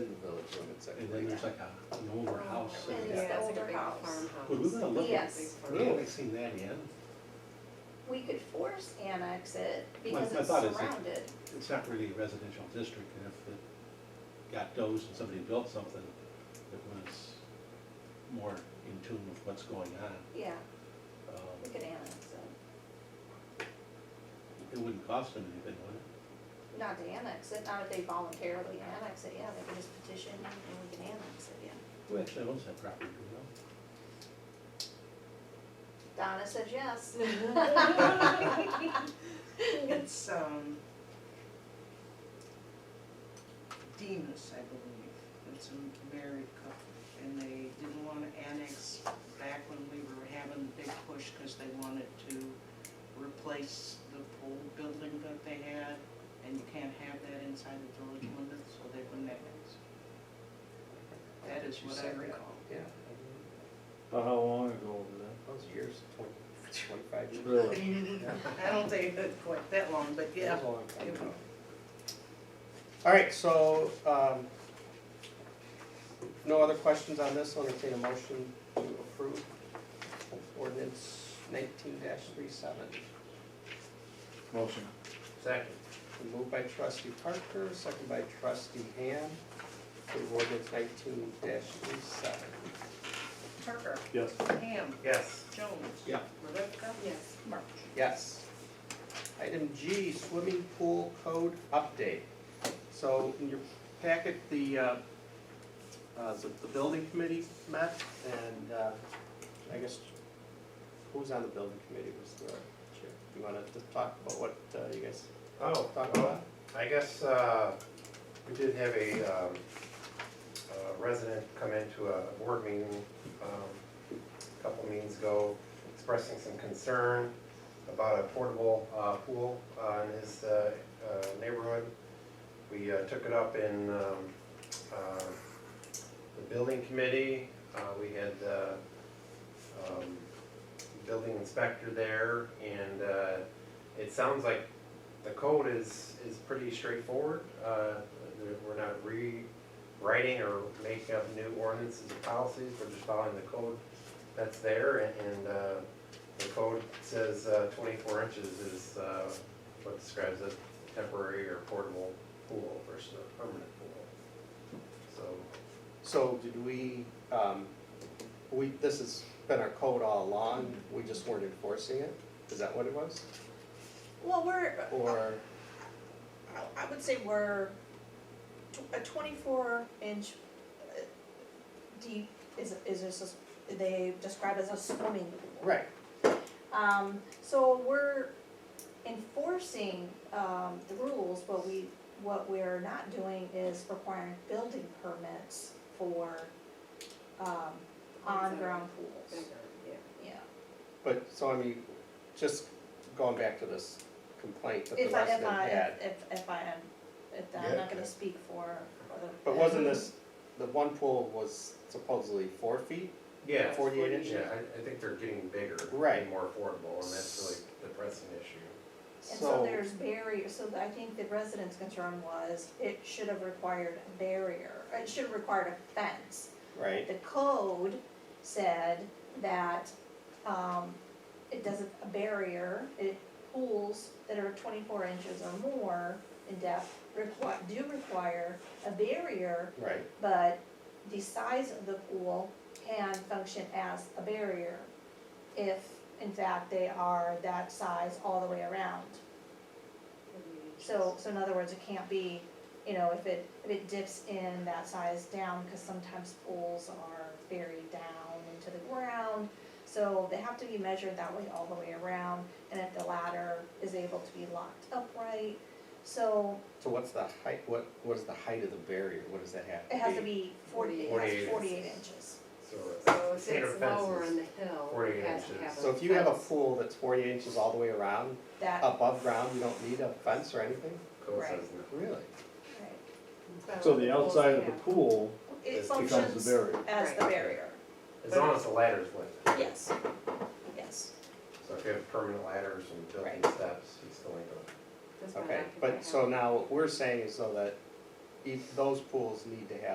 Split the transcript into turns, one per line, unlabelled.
and then there's like a, an older house.
And
and-
it's the
Oh, Yeah.
older house.
Would we wanna look at,
Yes.
we haven't seen that yet.
We could force annex it
My-
because
my
it's
thought is it-
surrounded.
It's not really a residential district, and if it got dozed and somebody built something that was more in tune with what's going on,
Yeah, we
um,
could annex it.
it wouldn't cost them anything, would it?
Not to annex it, not if they voluntarily annex it, yeah, they could just petition and we can annex it, yeah.
Who actually owns that property, do you know?
Donna says yes.
It's, um, Demus, I believe, it's a married couple, and they didn't wanna annex back when we were having the big push, cause they wanted to replace the old building that they had, and you can't have that inside the village limits, so they wouldn't annex. That is what I recall.
Yeah,
About how long ago was
those years, twenty, twenty-five
that?
years.
Really?
Yeah.
I don't think it quite that long, but yeah.
That was a long time
it
ago. All right, so, um, no other questions on this, I'll entertain a motion to approve ordinance nineteen 37
Motion.
Second.
Moved by trustee Parker, second by trustee Ham, approve ordinance nineteen 37
Parker,
Yes.
Ham,
Yes.
Jones.
Yeah.
Rebecca.
Yes.
March.
Yes. Item G, swimming pool code update. So in your packet, the, uh, uh, the the building committee met, and uh, I guess, who's on the building committee was the chair? You wanna just talk about what uh, you guys
Oh,
talked
well,
about?
I guess, uh, we did have a, um, a resident come into a board meeting, um, a couple meetings ago, expressing some concern about a portable, uh, pool, uh, in his, uh, uh, neighborhood. We, uh, took it up in, um, uh, the building committee, uh, we had, uh, um, building inspector there, and, uh, it sounds like the code is, is pretty straightforward. Uh, there- We're not rewriting or making up new ordinances or policies, we're just following the code that's there. and- And uh, the code says uh, 24 inches is uh, what describes a temporary or portable pool versus a permanent pool. So,
So did we, um, we, this has been our code all along, we just weren't enforcing it? Is that what it was?
Well, we're,
Or,
I- I would say we're, tw- a twenty-four inch uh, deep is, is this, a- they describe as a swimming pool.
right,
Um, so we're enforcing, um, the rules, but we, what we're not doing is requiring building permits for, um, on-ground pools. Yeah,
But, so I mean, just going back to this complaint that the
if I, if
resident
I,
had,
if, if I am, if I'm not gonna speak for, for the.
but wasn't this, the one pool was supposedly four feet?
yeah.
48 inches?
Yeah, I, I think they're getting bigger. and
Right.
More affordable, and that's really the pressing issue.
And so there's barrier, so I think the resident's concern was, it should have required a barrier, it should have required a fence.
Right,
The code said that, um, it doesn't, a barrier, it, pools that are twenty-four inches or more in depth require, do require a barrier,
right,
but the size of the pool can function as a barrier if, in fact, they are that size all the way around. So, so in other words, it can't be, you know, if it, if it dips in that size down, because sometimes pools are very down into the ground. So they have to be measured that way all the way around, and if the ladder is able to be locked upright. So
so what's the height, what, what is the height of the barrier, what does that have to
it
be?
has to be forty, it has
48.
forty-eight inches.
So
So
it's State or fences. lower on the
hill,
48 inches.
So if you have a pool that's forty inches all the way around,
That, right,
above ground, you don't need a fence or anything?
Code
Right.
says no.
Really?
So the outside of the pool
it
It becomes
becomes
functions
the barrier.
as the
Right.
barrier,
As long as the ladder's lit.
yes, yes.
So if you have permanent ladders and built-in steps, it's going to,
Okay, but so now what we're saying is though that each, e, those pools need to have